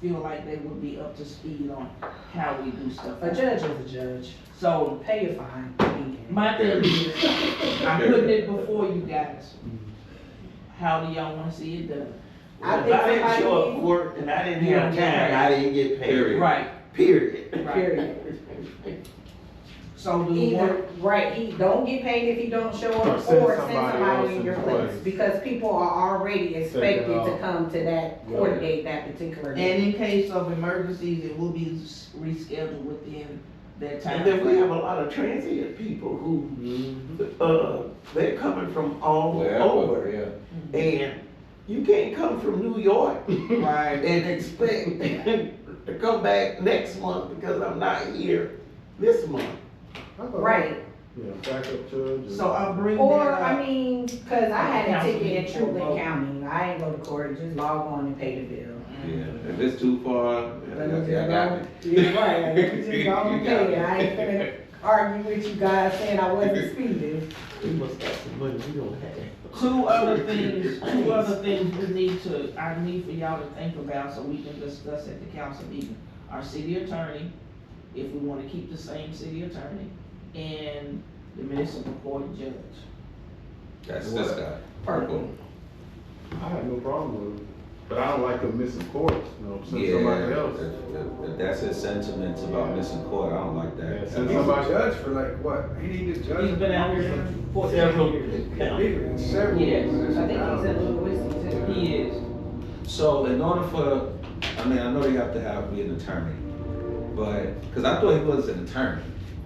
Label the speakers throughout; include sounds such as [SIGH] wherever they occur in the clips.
Speaker 1: feel like they would be up to speed on how we do stuff.
Speaker 2: A judge is a judge.
Speaker 1: So
Speaker 2: Pay your fine. He can.
Speaker 1: my thing is, I'm putting it before you guys. How do y'all wanna see it done?
Speaker 3: I
Speaker 4: If
Speaker 3: think
Speaker 4: I didn't
Speaker 3: somebody
Speaker 4: show up
Speaker 3: needs-
Speaker 4: for work and I didn't have time, I didn't get paid,
Speaker 3: Period.
Speaker 1: Right,
Speaker 4: period.
Speaker 1: right.
Speaker 2: Period.
Speaker 1: So do you
Speaker 2: Either,
Speaker 1: want,
Speaker 2: right, he don't get paid if he don't show
Speaker 5: Or
Speaker 2: up,
Speaker 5: send
Speaker 2: or send
Speaker 5: somebody else
Speaker 2: somebody in
Speaker 5: in
Speaker 2: your
Speaker 5: place.
Speaker 2: place. Because people are already expected to
Speaker 5: off.
Speaker 2: come to that court date that particular
Speaker 1: and
Speaker 2: day.
Speaker 1: in case of emergencies, it will be s- rescheduled within that time.
Speaker 4: And then we have a lot of transient people who,
Speaker 5: Mm-hmm.
Speaker 4: uh, they're coming from all over.
Speaker 5: yeah.
Speaker 4: And you can't come from New York
Speaker 1: Right,
Speaker 4: and expect to come back next month because I'm not here this month.
Speaker 2: Right,
Speaker 5: Yeah, backup judge.
Speaker 1: so uh, I'll bring that
Speaker 2: or,
Speaker 1: up.
Speaker 2: I mean, cause I had a
Speaker 1: Council
Speaker 2: ticket in
Speaker 1: people vote.
Speaker 2: Truman County, I ain't go to court, just log on and pay the [LAUGHS] bill.
Speaker 5: Mm-hmm.
Speaker 3: Yeah, if it's too far, I
Speaker 2: Let me
Speaker 3: I got it.
Speaker 2: just go, yeah, right, let me just
Speaker 3: You
Speaker 2: go and [LAUGHS]
Speaker 3: got
Speaker 2: pay it, I ain't gonna argue with you guys saying I wasn't speeding.
Speaker 4: We must have some money we don't have.
Speaker 1: Two other things, two other things we need to, I need for y'all to think about so we can discuss at the council meeting. Our city attorney, if we wanna keep the same city attorney, and the municipal court judge.
Speaker 3: That's this guy, purple.
Speaker 5: I have no problem with it, but I don't like them missing courts, you know, send
Speaker 3: Yeah,
Speaker 5: somebody else.
Speaker 3: if- if- if that's his sentiments about missing court, I don't like
Speaker 5: Yeah,
Speaker 3: that.
Speaker 5: send
Speaker 3: That's-
Speaker 5: somebody else.
Speaker 6: judge for like what? He needed a judge.
Speaker 1: He's been out here for
Speaker 4: Several
Speaker 1: fourteen years.
Speaker 6: Bigger, several.
Speaker 1: Yes,
Speaker 2: I think he said Louis too.
Speaker 1: He is.
Speaker 3: So in order for, I mean, I know they have to have, be an attorney, but, cause I thought he was an attorney,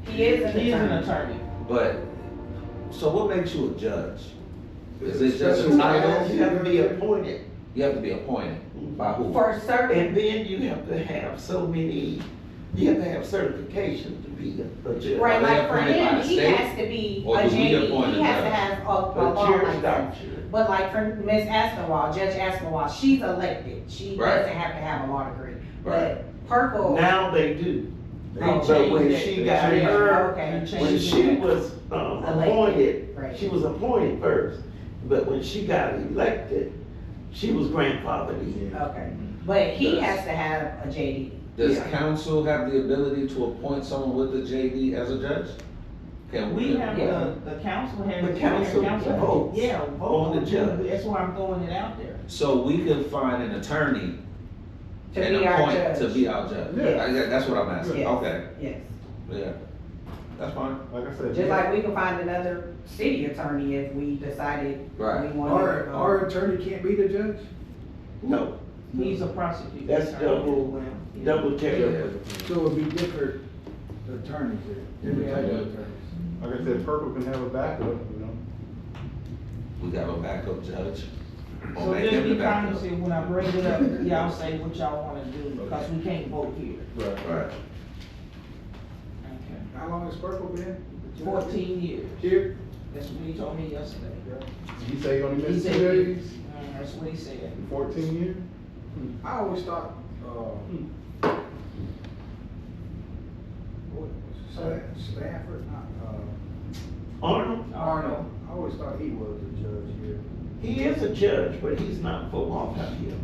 Speaker 2: He is an
Speaker 1: He is an
Speaker 2: attorney.
Speaker 1: attorney.
Speaker 3: but, so what makes you a judge? Is it just a
Speaker 6: Special
Speaker 3: title?
Speaker 6: judge.
Speaker 4: You have to be appointed.
Speaker 3: You have to be appointed by who?
Speaker 2: For certain,
Speaker 4: And then you have to have so many, you have to have certification to be a- a judge.
Speaker 2: right,
Speaker 3: Are they
Speaker 2: like for
Speaker 3: appointed by
Speaker 2: him,
Speaker 3: the
Speaker 2: he
Speaker 3: state?
Speaker 2: has to be
Speaker 3: Or
Speaker 2: a
Speaker 3: do we
Speaker 2: JD,
Speaker 3: appoint
Speaker 2: he
Speaker 3: a
Speaker 2: has to
Speaker 3: judge?
Speaker 2: have a, a
Speaker 4: A
Speaker 2: law
Speaker 4: juris
Speaker 2: license.
Speaker 4: doctor.
Speaker 2: But like for Ms. Aspinwall, Judge Aspinwall, she's elected, she
Speaker 3: Right.
Speaker 2: doesn't have to have a law degree.
Speaker 3: Right.
Speaker 2: But Purple,
Speaker 4: Now they do.
Speaker 3: They
Speaker 4: Oh, But
Speaker 3: change
Speaker 4: when
Speaker 3: that.
Speaker 4: she
Speaker 3: They
Speaker 4: got
Speaker 3: change
Speaker 4: her,
Speaker 2: okay,
Speaker 4: when she was um, appointed,
Speaker 2: right.
Speaker 4: she was appointed first, but when she got elected, she was grandfathered in.
Speaker 2: Okay, but he
Speaker 3: Does-
Speaker 2: has to have a JD.
Speaker 3: Does
Speaker 4: Yeah.
Speaker 3: council have the ability to appoint someone with a JD as a judge? Can
Speaker 1: We
Speaker 3: we?
Speaker 1: have the, the council has.
Speaker 4: The council votes
Speaker 1: Yeah, vote
Speaker 4: on the judge.
Speaker 1: That's why I'm throwing it out there.
Speaker 3: So we can find an attorney
Speaker 2: To
Speaker 3: and
Speaker 2: be our
Speaker 3: appoint to
Speaker 2: judge.
Speaker 3: be our judge?
Speaker 2: Yeah.
Speaker 3: I- yeah, That's what I'm asking,
Speaker 2: Yes.
Speaker 3: okay,
Speaker 2: Yes,
Speaker 3: yeah, that's fine,
Speaker 5: Like I said.
Speaker 2: just
Speaker 5: yeah.
Speaker 2: like we can find another city attorney if we decided we
Speaker 3: right.
Speaker 2: wanted.
Speaker 6: Our,
Speaker 2: to
Speaker 6: our
Speaker 2: go.
Speaker 6: attorney can't be the judge?
Speaker 4: No,
Speaker 1: He's a prosecutor.
Speaker 4: That's double-
Speaker 1: Well, yeah.
Speaker 4: double check.
Speaker 6: So it would be different attorneys there, different type of attorneys.
Speaker 5: Like I said, Purple can have a backup, you know.
Speaker 3: We got a backup judge. Or
Speaker 1: So
Speaker 3: make
Speaker 1: just
Speaker 3: him the
Speaker 1: be
Speaker 3: backup.
Speaker 1: cognizant when I bring it up, y'all say what y'all wanna do, because we can't vote here.
Speaker 5: Right.
Speaker 3: Right.
Speaker 1: Okay.
Speaker 6: How long has Purple been?
Speaker 1: Fourteen years,
Speaker 6: Here?
Speaker 1: that's what he told me yesterday.
Speaker 5: You say you only
Speaker 1: He
Speaker 5: missed
Speaker 1: said,
Speaker 5: two days,
Speaker 1: Mm, that's what he said.
Speaker 5: in fourteen years?
Speaker 6: I always thought, uh, Hmm. what, Sla- Stafford, not, uh,
Speaker 4: Arnold,
Speaker 6: Arnold, I always thought he was a judge here.
Speaker 4: he is a judge, but he's not for long out here.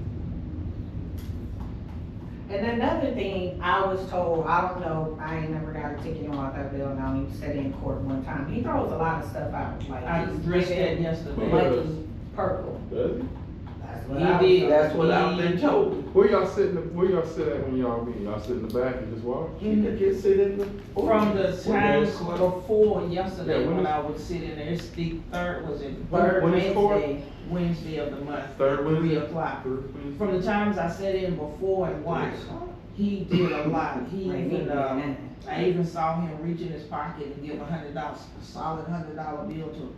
Speaker 2: And another thing, I was told, I don't know, I ain't never got a ticket on that bill, and I only sat in court one time, he throws a lot of stuff out,
Speaker 1: I
Speaker 2: like he's
Speaker 1: addressed that
Speaker 2: giving
Speaker 1: yesterday.
Speaker 2: money purple.
Speaker 5: Does he?
Speaker 2: That's what I was
Speaker 1: He did.
Speaker 2: told.
Speaker 4: That's what I've been told.
Speaker 5: Where y'all sitting, where y'all sit at when y'all meet? Y'all sit in the back and just watch?
Speaker 4: You could just sit in the.
Speaker 1: From the time
Speaker 3: is court?
Speaker 1: before
Speaker 5: Yeah,
Speaker 1: yesterday,
Speaker 5: when
Speaker 1: when
Speaker 5: is-
Speaker 1: I was sitting there, it's the third, was it
Speaker 2: Third
Speaker 5: When it's court?
Speaker 2: Wednesday,
Speaker 1: Wednesday of the month?
Speaker 5: Third Wednesday?
Speaker 1: Reapply.
Speaker 5: Third Wednesday?
Speaker 1: From the times I sat in before and watched, he did a lot. He
Speaker 2: Wednesday,
Speaker 1: even, um,
Speaker 2: nine.
Speaker 1: I even saw him reach in his pocket and give a hundred dollars, a solid hundred dollar bill to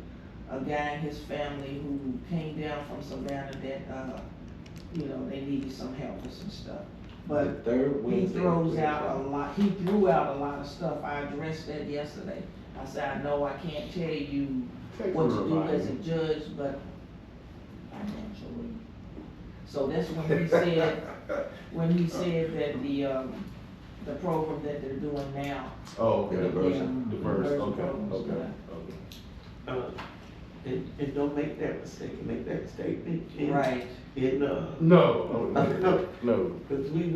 Speaker 1: a guy and his family who came down from Savannah that, uh, you know, they needed some help with some stuff. But
Speaker 3: The third
Speaker 1: he
Speaker 3: Wednesday.
Speaker 1: throws out a lot, he threw out a lot of stuff. I addressed that yesterday. I said, I know I can't tell you
Speaker 5: Take
Speaker 1: what
Speaker 5: some
Speaker 1: to do as a
Speaker 5: advice.
Speaker 1: judge, but financially. So that's when he said, when he said that the, um, the program that they're doing now
Speaker 5: Oh,
Speaker 3: The
Speaker 5: okay.
Speaker 3: diversion.
Speaker 1: yeah,
Speaker 5: Diverse,
Speaker 1: diversion
Speaker 5: okay,
Speaker 1: programs,
Speaker 5: okay,
Speaker 1: yeah.
Speaker 5: okay.
Speaker 4: Uh, And, and don't make that mistake, make that statement in,
Speaker 1: Right.
Speaker 4: in, uh,
Speaker 5: No, no, no.
Speaker 4: because we